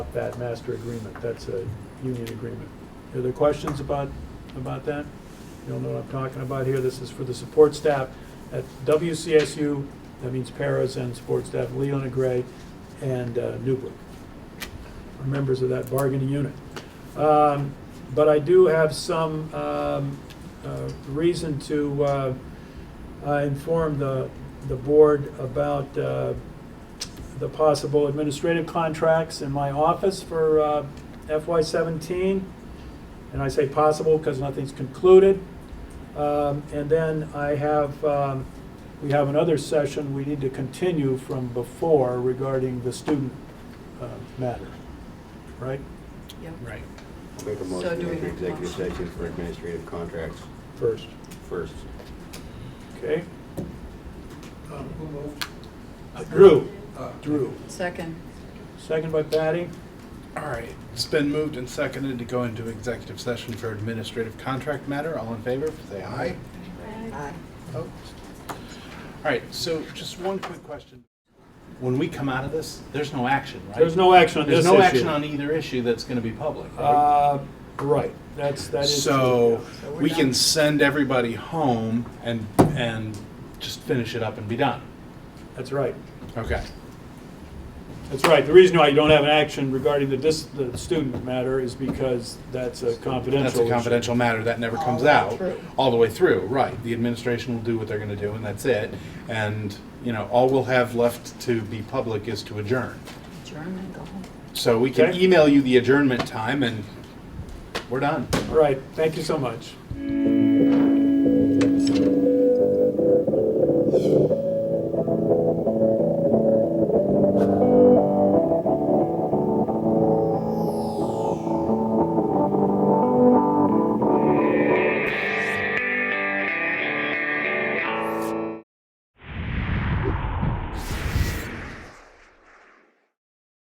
that master agreement. That's a union agreement. Are there questions about, about that? You don't know what I'm talking about here. This is for the support staff at WCSU, that means paras and support staff, Leona Gray and uh, Newbrook, are members of that bargaining unit. Um, But I do have some um, uh, reason to uh, uh, inform the, the board about uh, the possible administrative contracts in my office for uh, FY seventeen. And I say possible because nothing's concluded. Um, And then I have, um, we have another session we need to continue from before regarding the student uh, matter, right? Yep. Right. Make a So motion do to we enter make a executive motion? session for administrative contracts First, first. okay? Um, Who moved? Drew, Uh, Drew, Second, second by Patty. All right. It's been moved and seconded to go into executive session for administrative contract matter. All in favor, say aye. Opposed? All right, so just one quick question. When we come out of this, there's no action, right? There's no action on this There's issue. no action on either issue that's going to be public, right? Uh, right, that's, that is. So yeah. So we're we can done. send everybody home and, and just finish it up and be done. That's right. Okay. That's right. The reason why you don't have an action regarding the dis, the student matter is because that's a confidential That's a issue. confidential matter that never All comes the way out. through. All the way through, right. The administration will do what they're gonna do and that's it. And, you know, all we'll have left to be public is to adjourn. adjourn and go home. So we can Okay. email you the adjournment time and we're done. All right, thank you so much.